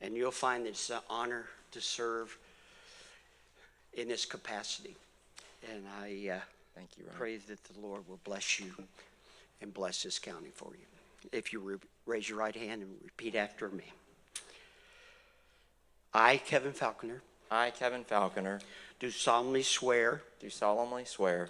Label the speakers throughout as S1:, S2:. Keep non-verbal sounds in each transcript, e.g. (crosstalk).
S1: and you'll find it's an honor to serve in this capacity. And I uh,
S2: Thank you, Ron.
S1: pray that the Lord will bless you and bless this county for you. If you re- raise your right hand and repeat after me. I, Kevin Falconer,
S2: I, Kevin Falconer,
S1: do solemnly swear
S2: do solemnly swear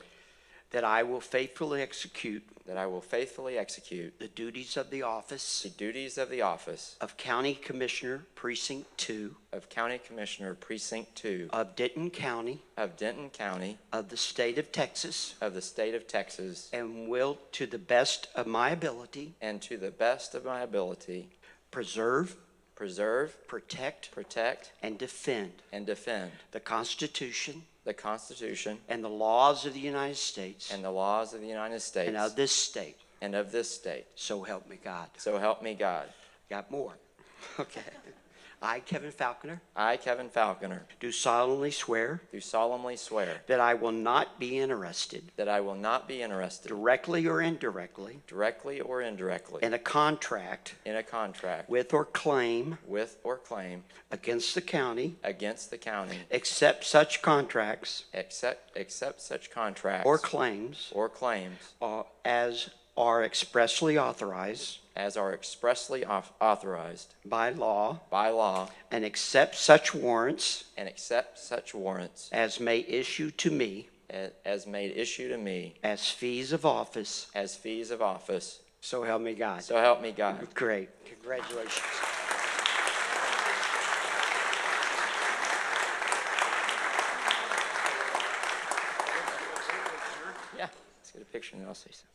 S1: that I will faithfully execute
S2: that I will faithfully execute
S1: the duties of the office
S2: the duties of the office
S1: of County Commissioner Precinct 2
S2: of County Commissioner Precinct 2
S1: of Denton County
S2: of Denton County
S1: of the state of Texas
S2: of the state of Texas
S1: and will, to the best of my ability,
S2: and to the best of my ability
S1: preserve,
S2: preserve,
S1: protect,
S2: protect,
S1: and defend
S2: and defend
S1: the Constitution
S2: the Constitution
S1: and the laws of the United States
S2: and the laws of the United
S1: and
S2: States
S1: of this state.
S2: and of this state.
S1: So help me God.
S2: So help me God.
S1: Got more. (laughs) Okay. I, Kevin Falconer,
S2: I, Kevin Falconer,
S1: do solemnly swear
S2: do solemnly swear
S1: that I will not be interested,
S2: that I will not be interested
S1: directly or indirectly,
S2: directly or indirectly
S1: in a contract
S2: in a contract
S1: with or claim
S2: with or claim
S1: against the county
S2: against the county
S1: except such contracts
S2: except except such contracts
S1: or claims
S2: or claims
S1: uh, as are expressly authorized
S2: as are expressly auth- authorized
S1: by law
S2: by law
S1: and accept such warrants
S2: and accept such warrants
S1: as may issue to me
S2: a- as made issue to me
S1: as fees of office.
S2: as fees of office.
S1: So help me God.
S2: So help me God.
S1: Great. Congratulations.
S2: Yeah, let's get a picture and then I'll say something.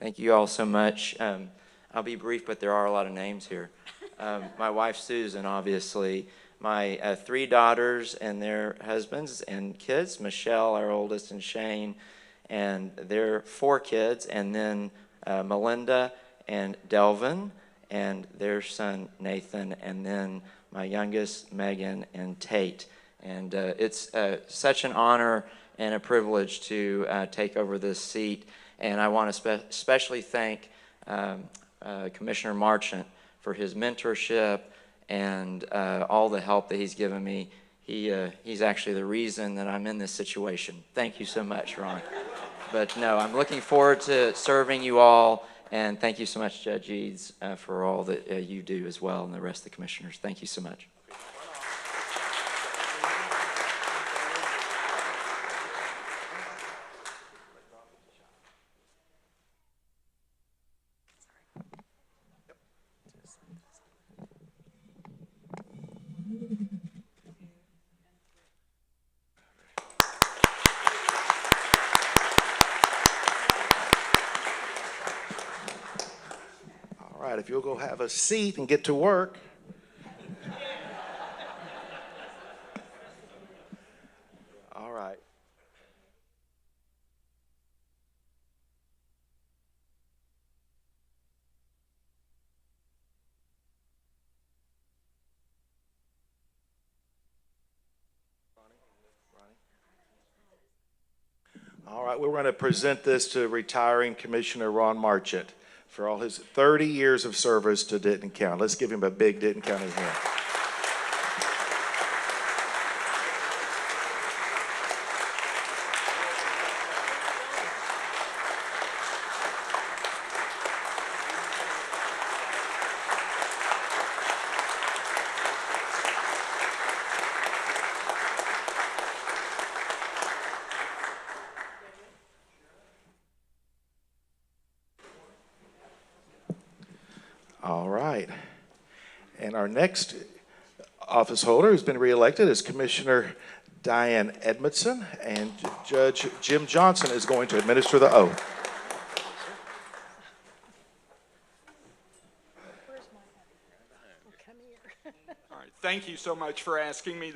S2: Thank you all so much. Um, I'll be brief, but there are a lot of names here. Um, my wife Susan, obviously, my uh, three daughters and their husbands and kids, Michelle, our oldest, and Shane, and their four kids, and then uh, Melinda and Delvin and their son Nathan, and then my youngest Megan and Tate. And uh, it's uh, such an honor and a privilege to uh, take over this seat. And I want to spe- especially thank um, uh, Commissioner Marchant for his mentorship and uh, all the help that he's given me. He, uh, he's actually the reason that I'm in this situation. Thank you so much, Ron. But no, I'm looking forward to serving you all, and thank you so much, Judge Eads, uh, for all that uh, you do as well, and the rest of the commissioners. Thank you so much.
S3: All right, if you'll go have a seat and get to work. All right. All right, we're going to present this to retiring Commissioner Ron Marchant for all his 30 years of service to Denton County. Let's give him a big Denton County hand. All right. And our next office holder who's been reelected is Commissioner Diane Edmondson, and Judge Jim Johnson is going to administer the oath.
S4: All right, thank you so much for asking me